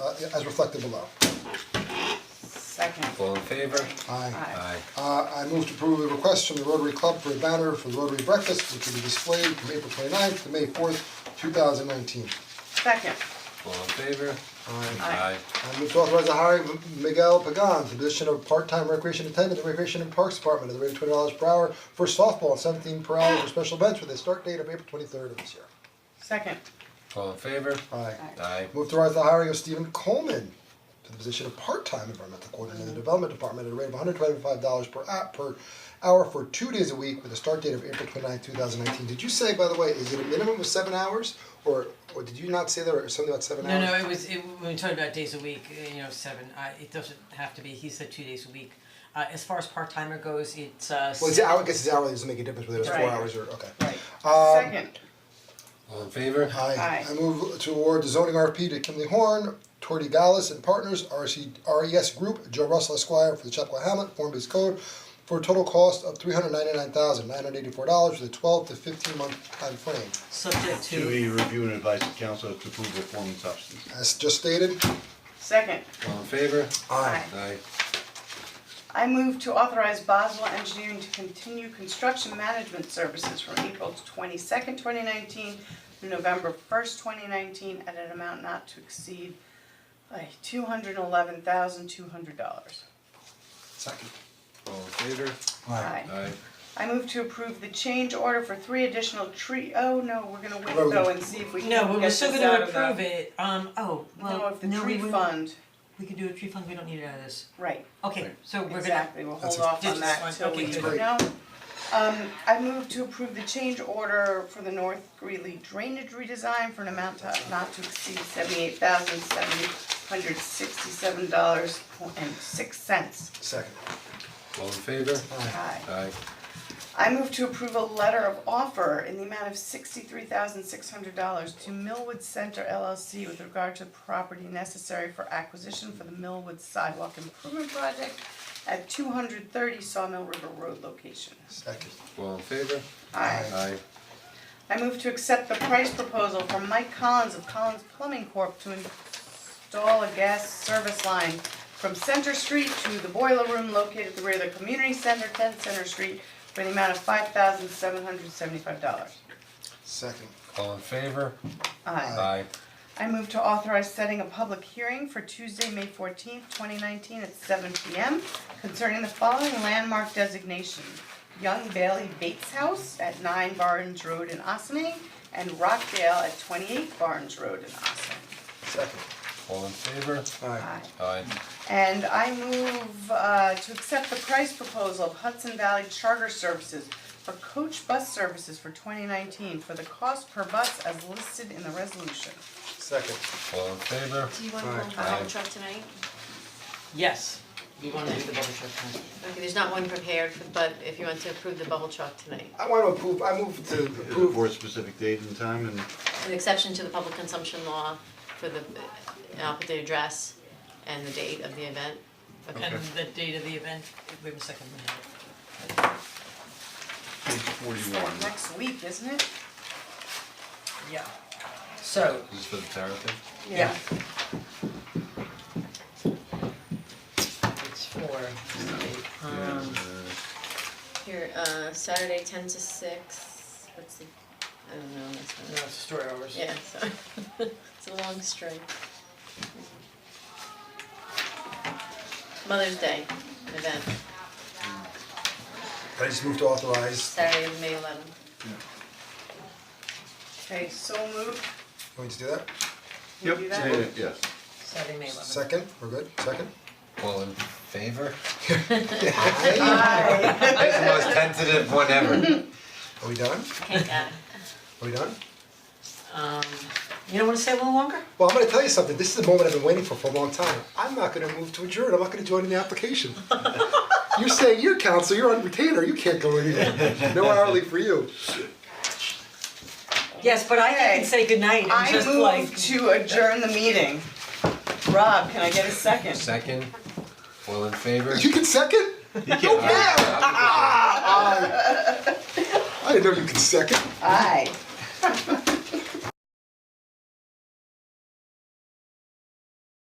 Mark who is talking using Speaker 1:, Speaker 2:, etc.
Speaker 1: Uh, as reflected below.
Speaker 2: Second.
Speaker 3: All in favor?
Speaker 1: Aye.
Speaker 2: Aye.
Speaker 1: Uh, I move to approve the request from the Rotary Club for a banner for the Rotary Breakfast, which will be displayed from April 29th to May fourth, two thousand nineteen.
Speaker 2: Second.
Speaker 3: All in favor?
Speaker 1: I
Speaker 2: Aye.
Speaker 1: move to authorize the hiring of Miguel Pagan, to the position of part-time recreation attendant in the Recreation and Parks Department at the rate of twenty dollars per hour for softball and seventeen per hour for special events with a start date of April twenty-third of this year.
Speaker 2: Second.
Speaker 3: All in favor?
Speaker 1: Aye.
Speaker 3: Aye.
Speaker 1: Move to authorize the hiring of Stephen Coleman to the position of part-time environmental coordinator in the Development Department at a rate of hundred twenty-five dollars per hour, per hour for two days a week with a start date of April twenty-ninth, two thousand nineteen. Did you say, by the way, is it a minimum of seven hours, or, or did you not say there was something about seven
Speaker 4: No,
Speaker 1: hours?
Speaker 4: no, it was, it, when we talked about days a week, uh, you know, seven, I, it doesn't have to be, he said two days a week. Uh, as far as part-timer goes, it's, uh,
Speaker 1: Well, it's hour, I guess it's hourly, it doesn't make a difference whether it's four
Speaker 2: Right.
Speaker 1: hours or, okay.
Speaker 2: Right.
Speaker 1: Um,
Speaker 2: Second.
Speaker 3: All in favor?
Speaker 1: I
Speaker 2: Aye.
Speaker 1: I move to award the zoning RP to Kimley Horn, Tori Gallus and Partners, RC, RES E Group, Joe Russell Esquire for the Chapel Hamlet Form-Based Code for a total cost of three hundred ninety-nine thousand nine hundred eighty-four dollars with a twelve to fifteen month time frame.
Speaker 4: subject
Speaker 5: To
Speaker 4: to,
Speaker 5: be reviewed and advised the council to approve the form and substance.
Speaker 1: As just stated,
Speaker 2: Second.
Speaker 3: All in favor?
Speaker 2: Aye.
Speaker 3: Aye.
Speaker 2: I move to authorize Boswell Engineering to continue construction management services from April twenty-second, twenty nineteen through November first, twenty nineteen, at an amount not to exceed like two hundred eleven thousand two hundred dollars.
Speaker 1: second.
Speaker 3: All in favor?
Speaker 2: Aye.
Speaker 3: Aye.
Speaker 2: I move to approve the change order for three additional tree, oh no, we're gonna wait
Speaker 1: Well, we-
Speaker 2: though and see if we can get this out
Speaker 4: no,
Speaker 2: of
Speaker 4: we
Speaker 2: the.
Speaker 4: were still gonna approve it, um, oh,
Speaker 2: No,
Speaker 4: well,
Speaker 2: if the
Speaker 4: no, we
Speaker 2: tree
Speaker 4: wouldn't-
Speaker 2: fund,
Speaker 4: we could do a tree fund, we don't need it out of this.
Speaker 2: right,
Speaker 4: Okay, so we're gonna,
Speaker 2: exactly, we'll
Speaker 1: That's
Speaker 2: hold
Speaker 1: it.
Speaker 2: off
Speaker 4: Just
Speaker 2: on that
Speaker 4: one,
Speaker 2: till
Speaker 4: okay,
Speaker 2: we,
Speaker 4: good.
Speaker 2: no. Um, I move to approve the change order for the North Greeley drainage redesign for an amount to- not to exceed seventy-eight thousand seven hundred sixty-seven dollars and six cents.
Speaker 1: Second.
Speaker 3: All in favor?
Speaker 2: Aye.
Speaker 3: Aye.
Speaker 2: I move to approve a letter of offer in the amount of sixty-three thousand six hundred dollars to Millwood Center LLC with regard to property necessary for acquisition for the Millwood Sidewalk Improvement Project at two hundred thirty Sawmill River Road location.
Speaker 1: Second.
Speaker 3: All in favor?
Speaker 2: Aye.
Speaker 3: Aye.
Speaker 2: I move to accept the price proposal from Mike Collins of Collins Plumbing Corp. to install a gas service line from Center Street to the boiler room located at the rear of the community center, ten Center Street, for the amount of five thousand seven hundred seventy-five dollars.
Speaker 1: Second.
Speaker 3: All in favor?
Speaker 2: Aye.
Speaker 3: Aye.
Speaker 2: I move to authorize setting a public hearing for Tuesday, May fourteenth, twenty nineteen at seven P M concerning the following landmark designation. Young Bailey Bates House at nine Barnes Road in Ossene and Rockdale at twenty-eight Barnes Road in Ossene.
Speaker 1: Second.
Speaker 3: All in favor?
Speaker 1: Aye.
Speaker 2: Aye.
Speaker 3: Aye.
Speaker 2: And I move uh to accept the price proposal of Hudson Valley Charter Services for coach bus services for twenty nineteen for the cost per bus as listed in the resolution.
Speaker 1: Second.
Speaker 3: All in favor?
Speaker 6: Do you wanna go into the
Speaker 3: Aye.
Speaker 6: bubble truck tonight?
Speaker 4: yes, we wanna do the bubble truck fund.
Speaker 6: Okay, there's not one prepared, but if you want to approve the bubble truck tonight.
Speaker 1: I want to approve, I move to
Speaker 5: Approve
Speaker 1: approve.
Speaker 5: for a specific date and time and
Speaker 6: An exception to the public consumption law for the, and I'll put the address and the date of the event. Okay,
Speaker 4: And the date of the event, wait a second, let me have it.
Speaker 5: page forty-one.
Speaker 2: Next week, isn't it?
Speaker 4: yeah. So,
Speaker 3: This is for the therapy?
Speaker 4: yeah. It's for, um,
Speaker 6: here, uh, Saturday, ten to six, what's the, I don't know, that's
Speaker 4: no,
Speaker 6: not,
Speaker 4: it's store hours.
Speaker 6: yeah, sorry, it's a long string. Mother's Day, an event,
Speaker 1: I just move to authorize,
Speaker 6: Saturday, May eleventh.
Speaker 2: Okay, so moved,
Speaker 1: you want me to do that?
Speaker 2: Can we do that?
Speaker 5: Yep, yeah, yes.
Speaker 4: Saturday, May eleventh.
Speaker 1: Second, we're good, second?
Speaker 3: All in favor?
Speaker 2: Aye.
Speaker 3: That's the most tentative one ever.
Speaker 1: Are we done?
Speaker 6: Can't get it.
Speaker 1: Are we done?
Speaker 4: Um, you don't wanna stay a little longer?
Speaker 1: Well, I'm gonna tell you something, this is the moment I've been waiting for for a long time. I'm not gonna move to adjourn, I'm not gonna join in the application. You're saying you're counsel, you're on retainer, you can't go anywhere. No hourly for you.
Speaker 4: Yes, but I
Speaker 2: Okay.
Speaker 4: didn't say goodnight, I'm
Speaker 2: I
Speaker 4: just like.
Speaker 2: move to adjourn the meeting. Rob, can I get a second?
Speaker 3: Second? All in favor?
Speaker 1: You can second?
Speaker 3: All right.
Speaker 1: I didn't know you could second.
Speaker 2: Aye.